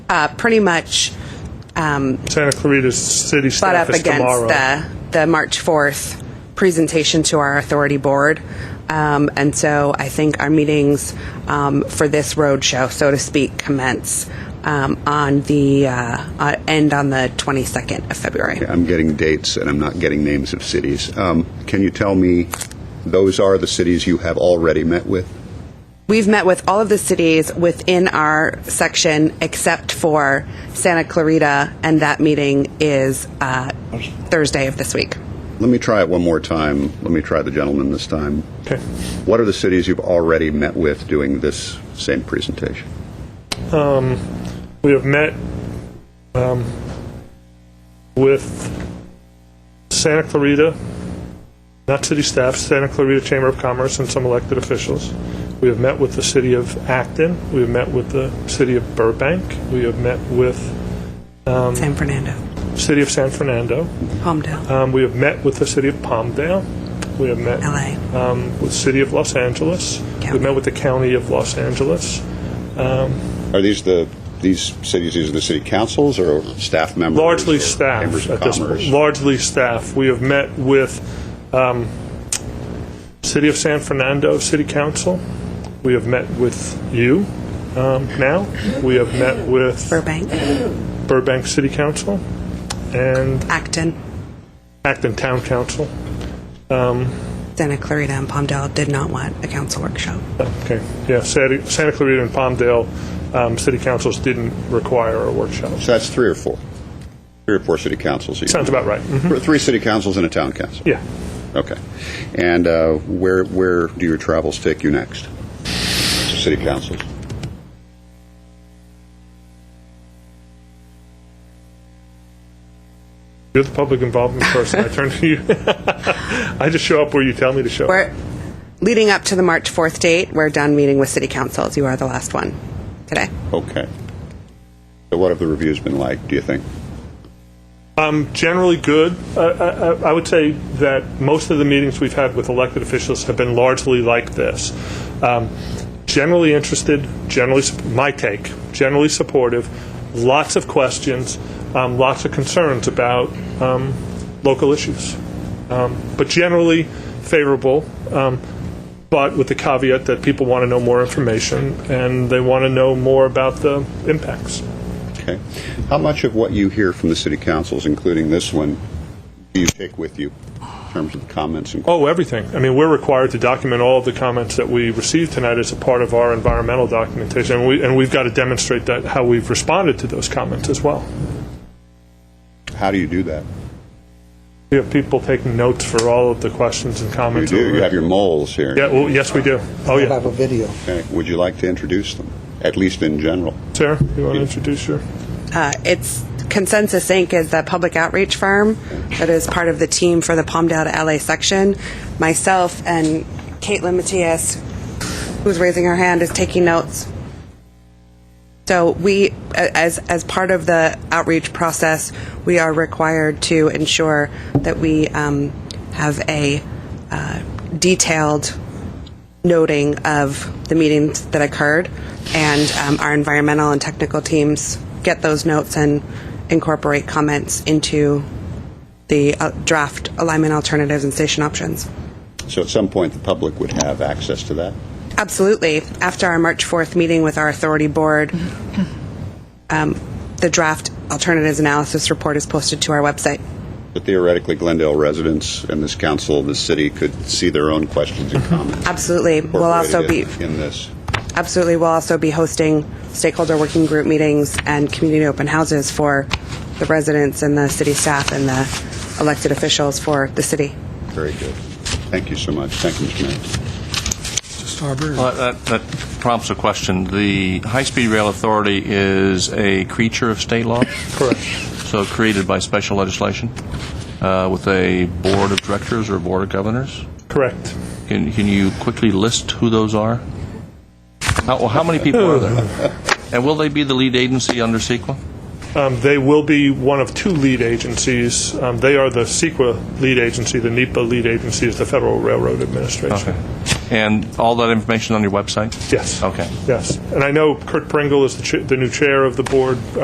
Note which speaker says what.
Speaker 1: uh, pretty much um,
Speaker 2: Santa Clarita City
Speaker 1: butt
Speaker 2: staff
Speaker 1: up
Speaker 2: is
Speaker 1: against
Speaker 2: tomorrow.
Speaker 1: the the March fourth presentation to our authority board, um, and so I think our meetings um, for this roadshow, so to speak, commence um, on the uh, uh, end on the twenty second of February.
Speaker 3: I'm getting dates and I'm not getting names of cities. Um, Can you tell me, those are the cities you have already met with?
Speaker 1: We've met with all of the cities within our section except for Santa Clarita, and that meeting is uh, Thursday of this week.
Speaker 3: Let me try it one more time. Let me try the gentleman this time.
Speaker 2: Okay.
Speaker 3: What are the cities you've already met with doing this same presentation?
Speaker 2: Um, we have met um, with Santa Clarita, not city staff, Santa Clarita Chamber of Commerce and some elected officials. We have met with the city of Acton. We have met with the city of Burbank. We have met with
Speaker 1: San Fernando,
Speaker 2: city of San Fernando.
Speaker 1: Palmdale,
Speaker 2: Um, we have met with the city of Palmdale. We have met
Speaker 1: LA.
Speaker 2: um, with city of Los Angeles.
Speaker 1: County.
Speaker 2: We've met with the county of Los Angeles.
Speaker 3: Are these the, these cities, these are the city councils or staff members?
Speaker 2: largely
Speaker 3: or Chambers
Speaker 2: staff
Speaker 3: of
Speaker 2: at this
Speaker 3: Commerce?
Speaker 2: point. Largely staff. We have met with um, City of San Fernando City Council. We have met with you um, now. We have met with
Speaker 1: Burbank,
Speaker 2: Burbank City Council and
Speaker 1: Acton,
Speaker 2: Acton Town Council.
Speaker 1: Santa Clarita, and Palmdale did not want a council workshop.
Speaker 2: Okay, yeah, Santa Santa Clarita and Palmdale um, City Councils didn't require a workshop.
Speaker 3: So that's three or four? Three or four city councils? you-
Speaker 2: Sounds about right. Mhm.
Speaker 3: Three city councils and a town council?
Speaker 2: Yeah.
Speaker 3: Okay. And uh, where where do your travels take you next? City councils.
Speaker 2: You're the public involvement person. I turn to you. I just show up where you tell me to show up.
Speaker 1: We're leading up to the March 4th date. We're done meeting with city councils. You are the last one today.
Speaker 3: Okay. So what have the reviews been like? Do you think?
Speaker 2: Um, generally good. Uh, I, I- I would say that most of the meetings we've had with elected officials have been largely like this. Um, generally interested, generally, sup- my take, generally supportive, lots of questions, um, lots of concerns about um, local issues, um, but generally favorable. Um, but with the caveat that people want to know more information and they want to know more about the impacts.
Speaker 3: Okay. How much of what you hear from the city councils, including this one, do you take with you in terms of comments and?
Speaker 2: Oh, everything. I mean, we're required to document all of the comments that we receive tonight as a part of our environmental documentation, and, we, and we've got to demonstrate that how we've responded to those comments as well.
Speaker 3: How do you do that?
Speaker 2: We have people taking notes for all of the questions and
Speaker 3: You
Speaker 2: comments.
Speaker 3: do.
Speaker 2: over-
Speaker 3: You have your moles here.
Speaker 2: yeah, well, yes, we do. Oh,
Speaker 4: I
Speaker 2: yeah.
Speaker 4: have a video.
Speaker 3: Okay. Would you like to introduce them, at least in general?
Speaker 2: Sarah, you want to introduce your?
Speaker 1: Uh, it's Consensus Inc. is the public outreach firm that is part of the team for the Palmdale to LA section. Myself and Caitlin Matias, who's raising her hand, is taking notes. So we, a- as as part of the outreach process, we are required to ensure that we um, have a uh, detailed noting of the meetings that occurred, and um, our environmental and technical teams get those notes and incorporate comments into the uh, draft alignment alternatives and station options.
Speaker 3: So at some point, the public would have access to that.
Speaker 1: Absolutely. After our March 4th meeting with our authority board, um, the draft alternatives analysis report is posted to our website.
Speaker 3: But theoretically, Glendale residents and this council, this city, could see their own questions and comments.
Speaker 1: Absolutely. We'll also be
Speaker 3: incorporated in- in this.
Speaker 1: absolutely we'll also be hosting stakeholder working group meetings and community open houses for the residents and the city staff and the elected officials for the city.
Speaker 3: Very good. Thank you so much. Thank you, Mr. Mayor.
Speaker 5: Well, that, that prompts a question. The High-Speed Rail Authority is a creature of state law? Correct. So created by special legislation uh, with a board of directors or board of governors?
Speaker 2: Correct.
Speaker 5: Can, can you quickly list who those are? How, well, how many people are there? And will they be the lead agency under E CEQA?
Speaker 2: Um, they will be one of two lead agencies. Um, they are the CEQA lead agency. The NEPA lead agency is the Federal Railroad Administration.
Speaker 5: Okay. And all that information on your website?
Speaker 2: Yes.
Speaker 5: Okay.
Speaker 2: Yes. And I know Kurt Pringle is the, ch- the new chair of the board.